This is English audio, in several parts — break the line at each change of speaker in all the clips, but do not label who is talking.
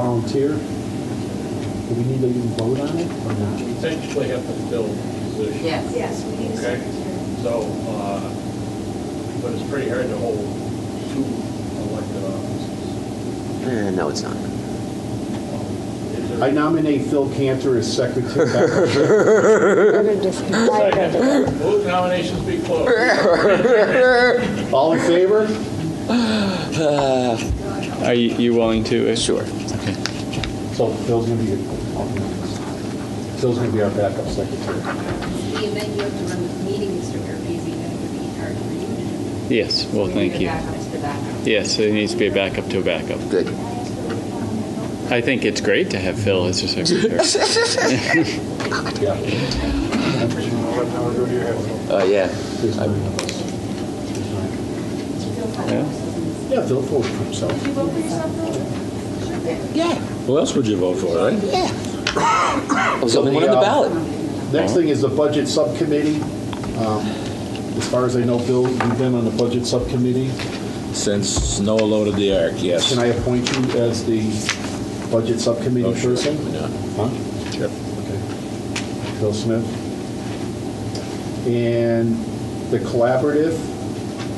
volunteer. Do we need to even vote on it or
We
not?
technically have to fill the position.
Yes.
Yes, we need a
Okay.
secretary.
So, uh, but it's pretty hard to hold two elected offices.
Eh, No, it's not.
Is there-
I nominate Phil Cantor as secretary.
We're just excited.
Second. Move nominations be closed.
All in favor?
Are you, you willing to? uh, Sure. Okay.
So Phil's gonna be, Phil's gonna be our backup secretary.
The event you have to run meetings to your busy, then it would be hard for you to do.
Yes, well,
We
thank
need
you.
a backup to backup.
Yes, it needs to be a backup to a backup.
Good.
I think it's great to have Phil as a secretary.
Yeah.
Oh, yeah.
There's nine of us. There's nine.
Yeah.
Yeah, Phil voted for himself.
You vote for yourself, though? Sure.
Who else would you vote for, right?
I was the only
So
one
the,
on the
uh,
ballot.
Next thing is the budget subcommittee. Um, As far as I know, Bill, you've been on the budget subcommittee.
Since Noah loaded the ark, yes.
Can I appoint you as the budget subcommittee
Oh, sure.
person?
Yeah.
Huh?
Sure.
Okay. Bill Smith. And the collaborative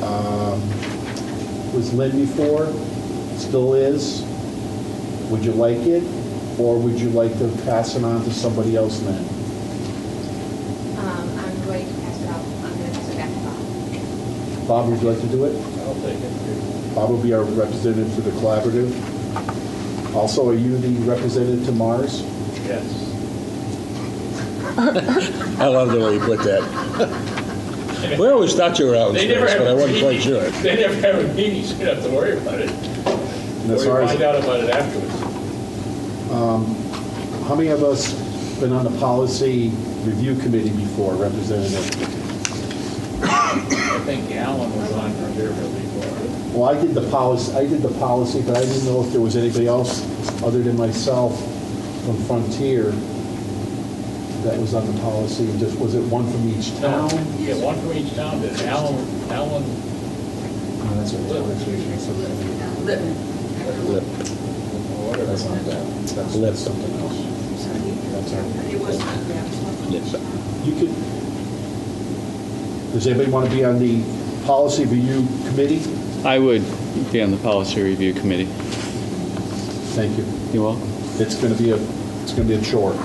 um, was Lynn before, still is. Would you like it, or would you like to pass it on to somebody else, Lynn?
Um, I'm going to pass it off, I'm going to pass it back to Bob.
Bob, would you like to do it?
I'll take it.
Bob will be our representative to the collaborative. Also, are you the representative to Mars?
Yes.
I love the way you put that. We always thought you were out in
They never
space,
have
but I wasn't quite
meetings.
sure.
They never have a meeting, so you don't have to worry about it.
And
Or
as
you
far as,
find out about it afterwards.
how many of us been on the policy review committee before, representative?
I think Alan was on for here before.
Well, I did the policy, I did the policy, but I didn't know if there was anybody else other than myself from Frontier that was on the policy, just, was it one from each town?
Yeah, one from each town, but Alan, Alan,
No, that's what it was.
Lip.
or whatever.
That's not that, that's that's something else. That's all right.
It was, yeah.
Yes.
You could, does anybody want to be on the policy review committee?
I would be on the policy review committee.
Thank you.
You all?
It's going to be a, it's going to be a chore.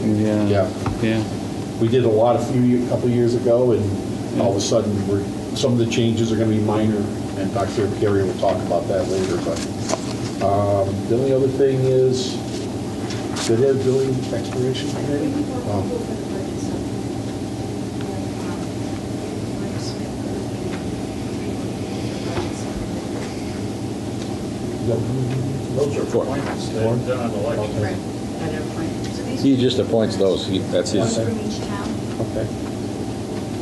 Yeah.
Yeah.
Yeah.
We did a lot a few, a couple of years ago, and all of a sudden, we're, some of the changes are going to be minor, and Dr. Carey will talk about that later, but, um, the only other thing is, did it have building exploration committee? Um, Oh, no.
Those are
Four.
appointments that are done on uh, election.
Right, at every point.
So these
He just appoints those, He- that's
um, One
his.
from each town?
Okay.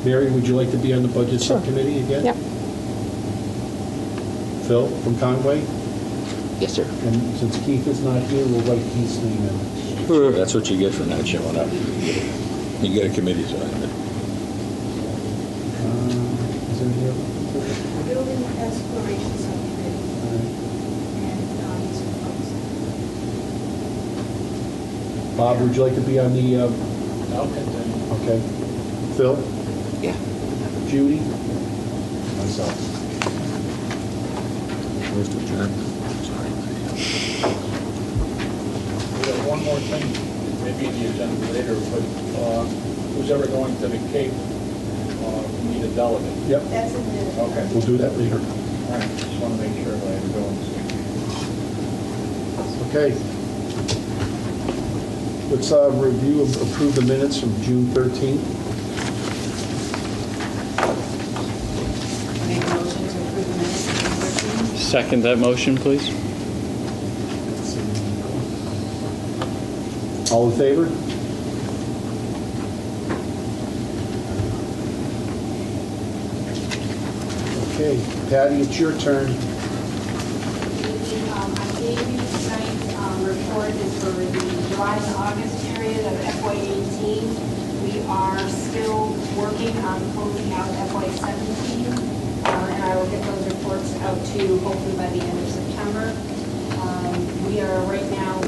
Mary, would you like to be on the budget subcommittee again?
Yep.
Phil from Conway?
Yes, sir.
And since Keith is not here, we'll write Keith's name in.
That's what you get for not showing up. You get a committee assignment.
Uh, Is there any other?
Building exploration subcommittee, and, um, it's proposed.
Uh, Bob, would you like to be on the, uh,
I'll continue.
okay, Phil,
Yeah.
Judy? Myself.
Where's the adjourn?
We have one more thing, maybe in the agenda later, but uh, who's ever going to the Cape, uh, we need a delegate.
Yep,
That's in the.
Okay.
we'll do that later.
All right, just want to make sure that I'm going.
Okay. Let's uh, review and approve the minutes from June 13th.
Make a motion to approve the minutes of the board meeting.
Second that motion, please.
All in favor? Okay, Patty, it's your turn.
Um, I gave you tonight's um, report is for the July and August period of FY '18. We are still working on closing out FY '17, and I will get those reports out to you hopefully by the end of September. Um, We are right now